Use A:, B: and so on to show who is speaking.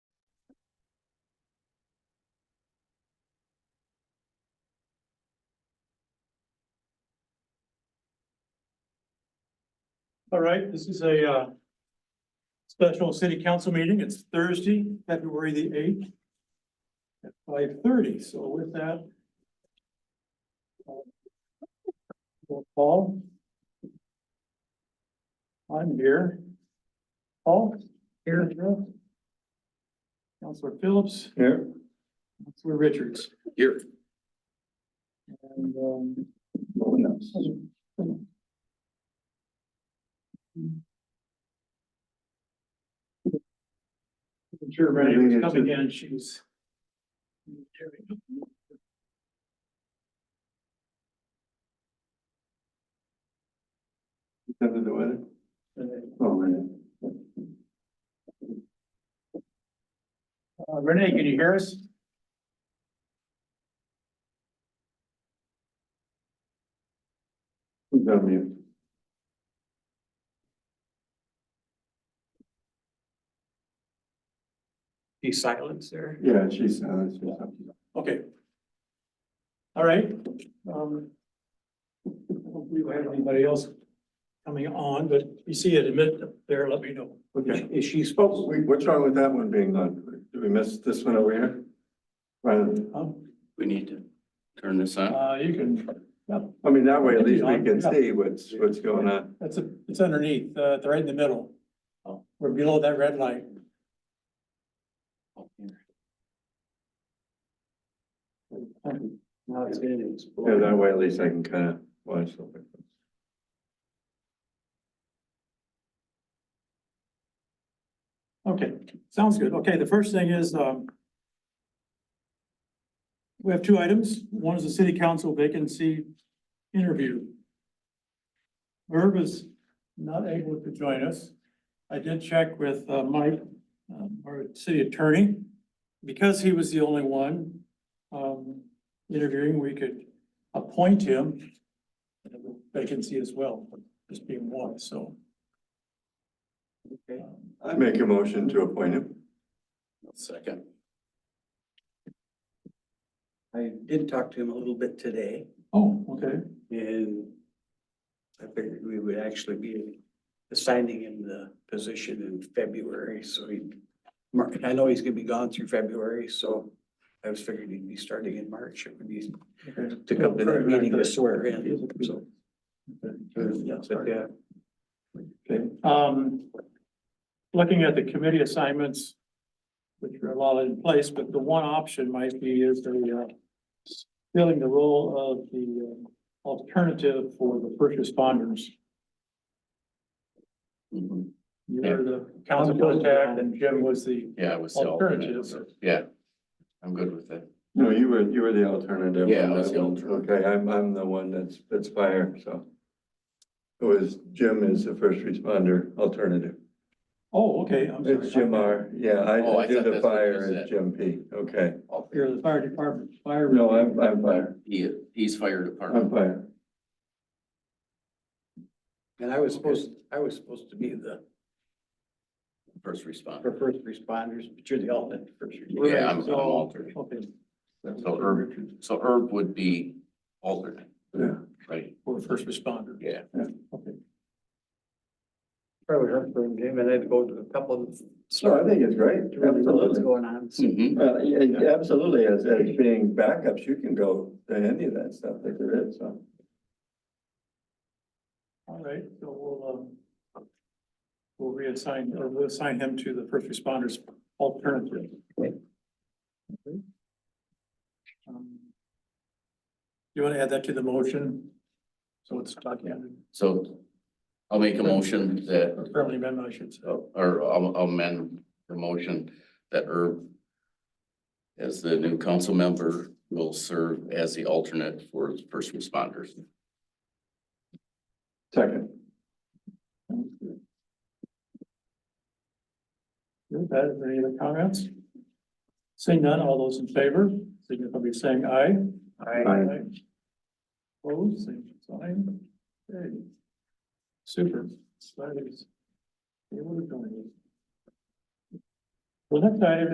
A: All right, this is a uh, special city council meeting. It's Thursday, February the eighth at five thirty. So with that, uh, Paul? I'm here. Paul? Here. Counselor Phillips? Here. Counselor Richards?
B: Here.
A: And, um, no one else. Sure, Renee was coming in, she was.
B: Under the weather?
A: Uh,
B: Oh, man.
A: Renee, can you hear us?
B: Who's on mute?
A: Be silent, sir.
B: Yeah, she's, uh, she's up.
A: Okay. All right, um. I don't believe I have anybody else coming on, but if you see it admit up there, let me know.
B: Okay. Is she supposed? We, what's wrong with that one being on? Did we miss this one over here? Right,
A: Um,
C: We need to turn this on.
A: Uh, you can, yep,
B: I mean, that way at least we can see what's, what's going on.
A: that's a, it's underneath, uh, it's right in the middle.
C: Oh.
A: We're below that red light. Now it's getting
B: Yeah, that way at least I can kind of watch something.
A: Okay, sounds good. Okay, the first thing is, um, we have two items. One is the city council vacancy interview. Herb is not able to join us. I did check with, uh, Mike, um, our city attorney. Because he was the only one, um, interviewing, we could appoint him and have a vacancy as well, just being one, so. Okay.
B: I make a motion to appoint him.
C: Second.
D: I did talk to him a little bit today
A: Oh, okay.
D: and I figured we would actually be assigning him the position in February, so he Mark, I know he's gonna be gone through February, so I was figuring he'd be starting in March. It would be to come to that meeting to swear in, so. But yeah,
B: Okay,
A: Um, looking at the committee assignments, which are a lot in place, but the one option might be is the, uh, filling the role of the uh, alternative for the first responders.
C: Mhm.
A: You were the council contact and Jim was the,
C: Yeah, I was the alternate. so,
A: Alternative.
C: Yeah, I'm good with that.
B: no, you were, you were the alternative.
C: Yeah, I was the alternate.
B: Okay, I'm, I'm the one that's, that's fire, so. It was, Jim is the first responder alternative.
A: oh, okay, I'm sorry.
B: It's Jim R, yeah,
C: Oh,
B: I
C: I
B: did
C: thought
B: the
C: that's what
B: fire
C: you
B: as
C: said.
B: Jim P, okay.
A: You're the fire department, fire.
B: No, I'm, I'm fire,
C: He, he's fire
B: I'm
C: department.
B: fire.
D: and I was supposed, I was supposed to be the
C: First responder.
D: for first responders, but you're the alternate first. responder.
C: Yeah, I'm, I'm
A: So-
C: alternate.
A: Okay,
C: So Herb, so Herb would be alternate,
B: Yeah,
C: right?
A: for first responder.
C: Yeah.
A: Okay.
D: Probably heard from him and I had to go to a couple of.
B: so I think it's great,
D: to really know What's
B: absolutely.
D: going on, so.
C: Mhm.
B: Well, yeah, yeah, absolutely, as, as being backups, you can go to any of that stuff that there is, so.
A: All right, so we'll, um, we'll reassign, or we'll assign him to the first responders alternative. Um, You want to add that to the motion? So it's documented,
C: So I'll make a motion that,
A: or friendly amendment, I should say.
C: or I'll I'll amend the motion that Herb as the new council member will serve as the alternate for first responders.
B: Second.
A: Good, that, is there any other comments? Seeing none, all those in favor, signify by saying aye.
B: Aye.
A: Opposed, same sign. Okay. Super. That is- they were doing it. The next item